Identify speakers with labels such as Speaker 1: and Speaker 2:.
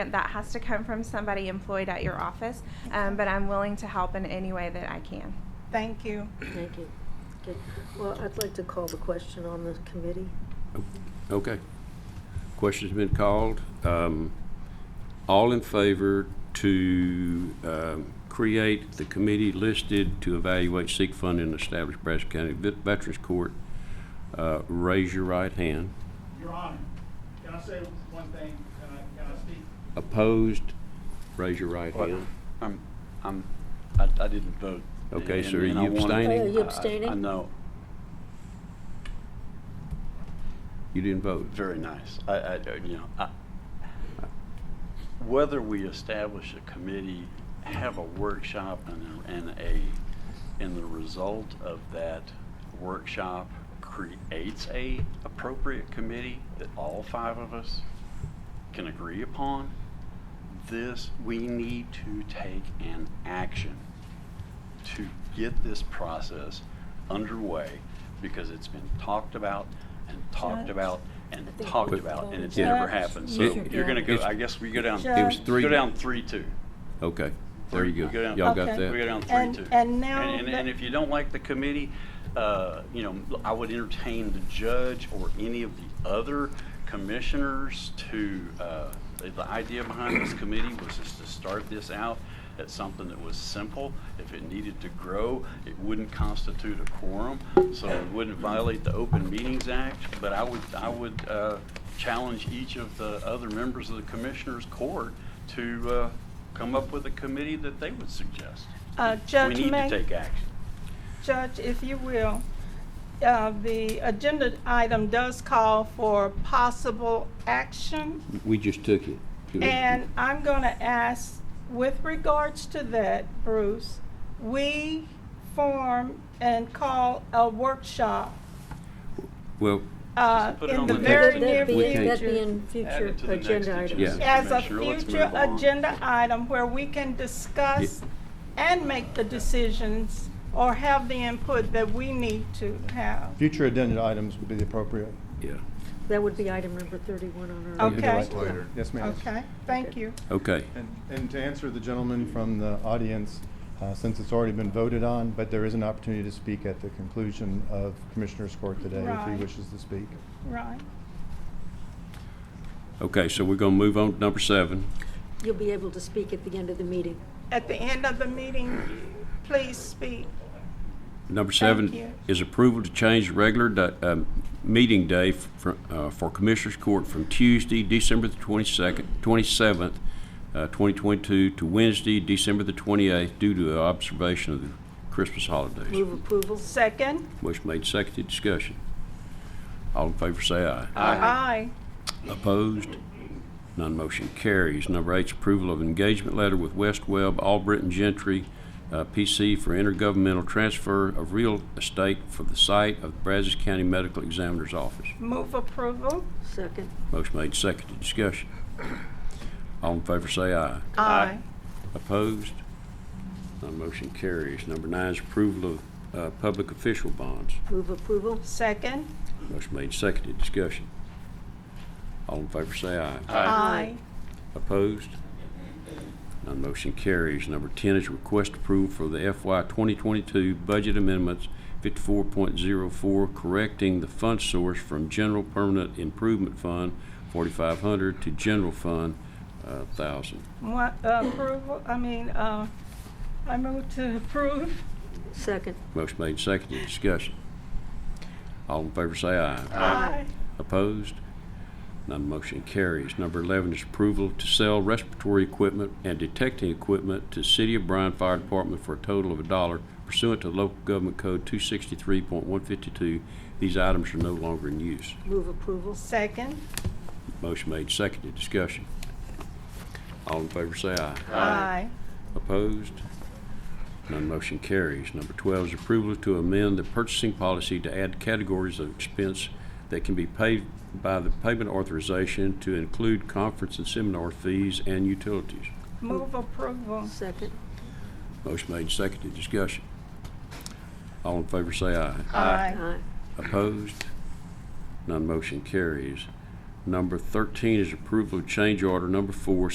Speaker 1: That has to come from somebody employed at your office, um, but I'm willing to help in any way that I can.
Speaker 2: Thank you.
Speaker 3: Thank you. Good. Well, I'd like to call the question on the committee.
Speaker 4: Okay. Question's been called. Um, All in favor to um, create the committee listed to evaluate, seek fund, and establish Brazos County Vet- Veterans Court, uh, raise your right hand.
Speaker 5: Your Honor, can I say one thing? Can I, can I speak?
Speaker 4: Opposed, raise your right
Speaker 6: Well,
Speaker 4: hand.
Speaker 6: I'm, I'm, I, I didn't vote.
Speaker 4: Okay,
Speaker 6: and-
Speaker 4: so are
Speaker 6: and I
Speaker 4: you
Speaker 6: wanted-
Speaker 4: abstaining?
Speaker 3: Oh, you
Speaker 6: I- I-
Speaker 3: abstaining?
Speaker 6: I know,
Speaker 4: You didn't vote.
Speaker 6: very nice. I, I, you know, I, whether we establish a committee, have a workshop and, a- and a, and the result of that workshop creates a appropriate committee that all five of us can agree upon, this, we need to take an action to get this process underway because it's been talked about and talked
Speaker 2: Judge?
Speaker 6: about and
Speaker 3: think
Speaker 6: talked
Speaker 3: we've
Speaker 6: about and it's
Speaker 3: voted.
Speaker 6: never
Speaker 2: Judge,
Speaker 6: happened.
Speaker 3: you
Speaker 6: So
Speaker 3: should
Speaker 6: you're gonna
Speaker 3: go.
Speaker 6: go, I guess we go down,
Speaker 2: It was
Speaker 4: three-
Speaker 6: go down three, two.
Speaker 4: Okay, there you
Speaker 6: We go
Speaker 4: go.
Speaker 6: down-
Speaker 4: Y'all got
Speaker 2: Okay.
Speaker 6: We go
Speaker 4: that?
Speaker 6: down
Speaker 2: And-
Speaker 6: three, two.
Speaker 2: and now
Speaker 6: And,
Speaker 2: that-
Speaker 6: and if you don't like the committee, uh, you know, I would entertain the judge or any of the other commissioners to, uh, the- the idea behind this committee was just to start this out at something that was simple. If it needed to grow, it wouldn't constitute a quorum, so it wouldn't violate the Open Meetings Act. But I would, I would, uh, challenge each of the other members of the commissioners' court to, uh, come up with a committee that they would suggest.
Speaker 2: Uh, Judge
Speaker 6: We need to
Speaker 2: May,
Speaker 6: take action.
Speaker 2: Judge, if you will, uh, the agenda item does call for possible action.
Speaker 4: We just took it.
Speaker 2: And I'm going to ask, with regards to that, Bruce, we form and call a workshop
Speaker 4: Well,
Speaker 2: uh,
Speaker 6: put it
Speaker 2: in
Speaker 6: on
Speaker 2: the
Speaker 6: the
Speaker 2: very
Speaker 6: next
Speaker 2: near
Speaker 3: That'd be-
Speaker 4: agenda.
Speaker 2: future.
Speaker 3: That'd be in
Speaker 6: Add
Speaker 3: future
Speaker 6: it to the next
Speaker 3: agenda
Speaker 6: agenda.
Speaker 3: items.
Speaker 4: Yeah.
Speaker 2: as a
Speaker 6: Commissioner, let's
Speaker 2: future
Speaker 6: move on.
Speaker 2: agenda item where we can discuss and make the decisions or have the input that we need to have.
Speaker 7: Future agenda items would be the appropriate.
Speaker 4: yeah,
Speaker 3: That would be item number 31 on our.
Speaker 2: Okay.
Speaker 7: You'd be right. Yes, ma'am.
Speaker 2: Okay, thank you.
Speaker 4: okay.
Speaker 7: And, and to answer the gentleman from the audience, uh, since it's already been voted on, but there is an opportunity to speak at the conclusion of Commissioner's Court today if he
Speaker 2: Right.
Speaker 7: wishes to speak.
Speaker 2: Right.
Speaker 4: Okay, so we're gonna move on to number seven.
Speaker 3: You'll be able to speak at the end of the meeting.
Speaker 2: At the end of the meeting, please speak.
Speaker 4: Number
Speaker 2: you.
Speaker 4: seven is approval to change the regular di- um, meeting day for uh, for Commissioners Court from Tuesday, December the 22nd, 27th, uh, 2022, to Wednesday, December the 28th, due to the observation of the Christmas holidays.
Speaker 3: Move approval.
Speaker 2: Second?
Speaker 4: Motion made, seconded, discussion. All in favor say aye.
Speaker 2: Aye.
Speaker 4: Opposed? None motion carries. Number eight is approval of engagement letter with West Webb All Britain Gentry, uh, PC for intergovernmental transfer of real estate for the site of Brazos County Medical Examiner's Office.
Speaker 2: Move approval?
Speaker 3: Second.
Speaker 4: Motion made, seconded, discussion. All in favor say aye.
Speaker 2: Aye.
Speaker 4: Opposed? None motion carries. Number nine is approval of uh, public official bonds.
Speaker 3: Move approval.
Speaker 2: Second?
Speaker 4: Motion made, seconded, discussion. All in favor say aye.
Speaker 2: Aye.
Speaker 4: Opposed? None motion carries. Number 10 is request approval for the FY 2022 budget amendments 54.04, correcting the fund source from General Permanent Improvement Fund 4,500 to General Fund uh, 1,000.
Speaker 2: One, uh, approval, I mean, uh, I move to approve.
Speaker 3: Second.
Speaker 4: Motion made, seconded, discussion. All in favor say aye.
Speaker 2: Aye.
Speaker 4: Opposed? None motion carries. Number 11 is approval to sell respiratory equipment and detecting equipment to City of Bryan Fire Department for a total of a dollar pursuant to local government code 263.152. These items are no longer in use.
Speaker 3: Move approval.
Speaker 2: Second?
Speaker 4: Motion made, seconded, discussion. All in favor say aye.
Speaker 2: Aye.
Speaker 4: Opposed? None motion carries. Number 12 is approval to amend the purchasing policy to add categories of expense that can be paid by the payment authorization to include conference and seminar fees and utilities.
Speaker 2: Move approval.
Speaker 3: Second.
Speaker 4: Motion made, seconded, discussion. All in favor say aye.
Speaker 2: Aye.
Speaker 3: Aye.
Speaker 4: Opposed? None motion carries. Number 13 is approval of change order number four,